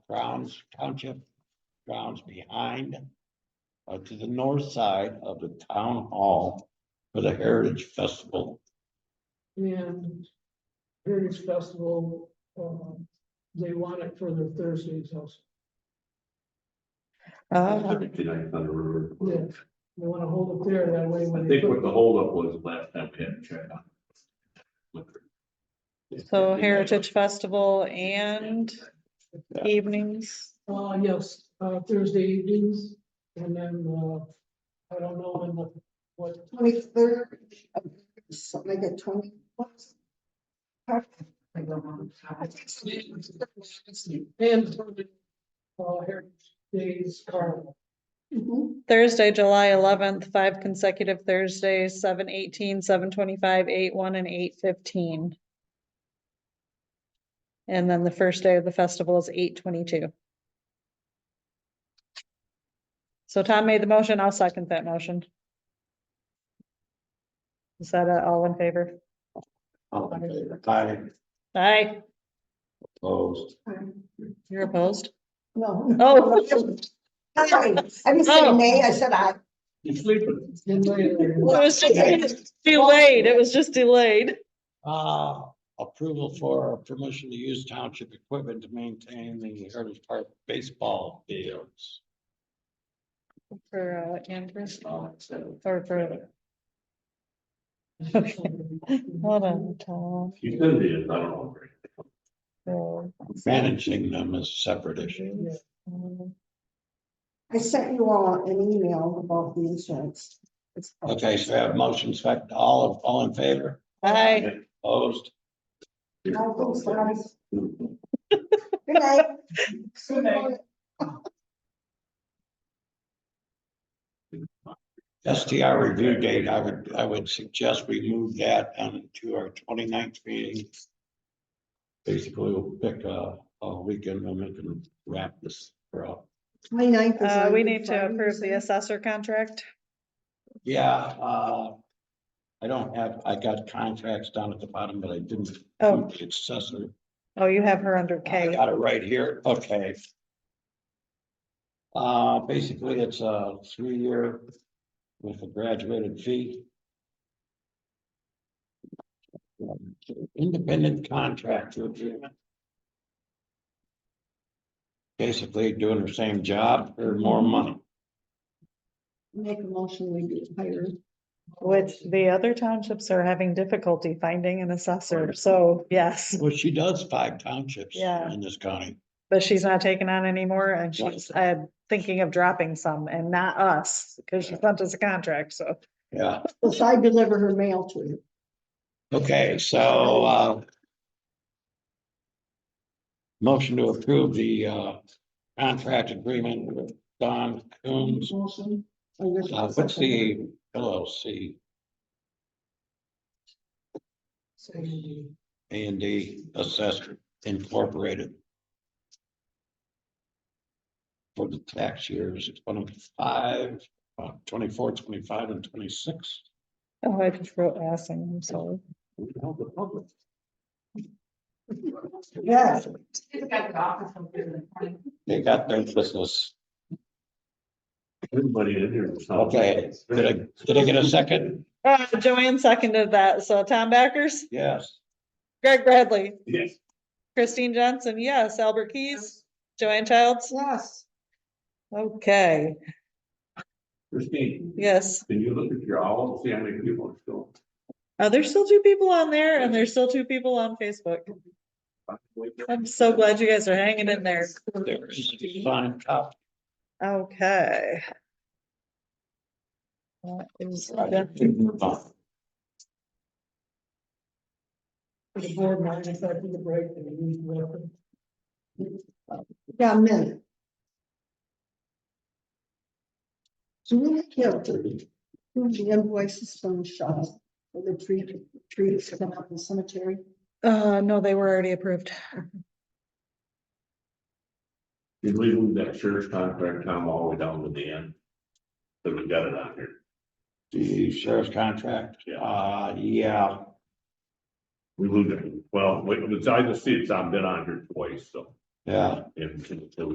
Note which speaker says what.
Speaker 1: grounds, township grounds behind uh, to the north side of the town hall for the Heritage Festival.
Speaker 2: And Heritage Festival, um, they want it for their Thursdays also.
Speaker 3: Oh,
Speaker 4: Fifty ninth on the river.
Speaker 2: Yeah, they wanna hold it there that way. when
Speaker 4: I
Speaker 2: they
Speaker 4: think what
Speaker 2: cook.
Speaker 4: the holdup was last time we had a chat. on liquor.
Speaker 3: so Heritage Festival and evenings.
Speaker 2: Uh, yes, uh, Thursday evenings, and then, uh, I don't know when the, what,
Speaker 5: Twenty-third, something like a twenty. I don't know.
Speaker 2: and uh, Heritage Days Carnival.
Speaker 5: Mhm.
Speaker 3: Thursday, July eleventh, five consecutive Thursdays, seven eighteen, seven twenty-five, eight one, and eight fifteen. And then the first day of the festival is eight twenty-two. So Tom made the motion, I'll second that motion. Is that uh, all in favor?
Speaker 1: All in favor? Aye,
Speaker 3: Aye,
Speaker 1: opposed.
Speaker 3: you're opposed?
Speaker 5: No.
Speaker 3: Oh.
Speaker 5: Sorry, I didn't say
Speaker 3: Oh.
Speaker 5: nay, I said I.
Speaker 4: You sleeping?
Speaker 2: Then later,
Speaker 3: It was just delayed, it was just delayed.
Speaker 1: Uh, approval for permission to use township equipment to maintain the Heritage Park baseball fields.
Speaker 3: For uh, Andrew,
Speaker 4: Oh, so-
Speaker 3: or for, hold on, Tom.
Speaker 4: You said it is, I don't know.
Speaker 3: So,
Speaker 1: Managing them is a separate issue.
Speaker 2: Yeah.
Speaker 3: um,
Speaker 5: I sent you all an email about the insurance. It's-
Speaker 1: Okay, so I have motions, fact, all, all in favor,
Speaker 3: Aye.
Speaker 1: opposed,
Speaker 5: No, I'm sorry.
Speaker 4: Good
Speaker 5: Good night.
Speaker 2: Good night.
Speaker 1: STR review date, I would, I would suggest we move that on to our 29th meeting. Basically, we'll pick a, a weekend and we can wrap this up.
Speaker 5: Twenty-ninth is
Speaker 3: Uh,
Speaker 5: on
Speaker 3: we need to
Speaker 5: Friday,
Speaker 3: approve the
Speaker 5: isn't it?
Speaker 3: assessor contract.
Speaker 1: Yeah, uh, I don't have, I got contracts down at the bottom, but I didn't. include
Speaker 3: Oh.
Speaker 1: the Accessor.
Speaker 3: Oh, you have her under
Speaker 1: I
Speaker 3: K.
Speaker 1: got it right here, okay. Uh, basically, it's a three-year with a graduated fee. Independent contractor agreement. Basically doing the same job for more money.
Speaker 5: Make a motion, we be hired.
Speaker 3: Which the other townships are having difficulty finding an assessor, so yes,
Speaker 1: Well, she does five townships
Speaker 3: Yeah.
Speaker 1: in this county.
Speaker 3: but she's not taking on anymore and she's, uh, thinking of dropping some and not us, because she sent us a contract, so.
Speaker 1: Yeah,
Speaker 5: Well, so I deliver her mail to you.
Speaker 1: okay, so, uh. Motion to approve the, uh, contract agreement with Don Coombs.
Speaker 5: Motion. Oh, you're-
Speaker 1: Uh, what's the LLC,
Speaker 2: Saturday.
Speaker 1: A and D Assessor Incorporated? For the tax years, it's one of five, uh, twenty-four, twenty-five and twenty-six.
Speaker 3: Oh, I just wrote assing, I'm sorry.
Speaker 1: We held the public.
Speaker 5: Yes.
Speaker 1: They got their business.
Speaker 4: Everybody in here. was-
Speaker 1: Okay, did I, did I get a second?
Speaker 3: Uh, Joanne seconded that, so Tom Backers,
Speaker 1: Yes.
Speaker 3: Greg Bradley,
Speaker 4: Yes.
Speaker 3: Christine Johnson, yes, Albert Keys, Joanne Childs,
Speaker 5: Yes.
Speaker 3: okay,
Speaker 4: Christine,
Speaker 3: yes.
Speaker 4: can you look at your owl, and see how many people are still?
Speaker 3: Uh, there's still two people on there and there's still two people on Facebook. I'm so glad you guys are hanging in there.
Speaker 1: There is a signed copy.
Speaker 3: Okay. That is definitely-
Speaker 1: Well,
Speaker 2: For The board might if I do the break and we need weapon.
Speaker 5: Yeah, a minute. So we have to, who the invoices from Shaw, for the tree, trees coming up in the cemetery.
Speaker 3: Uh, no, they were already approved.
Speaker 4: You leave that sheriff's contract time all the way down to the end. So we got it on here.
Speaker 1: The sheriff's contract, uh, yeah,
Speaker 4: We moved it, well, we- besides the seats, I've been on here twice, so
Speaker 1: yeah.
Speaker 4: If, if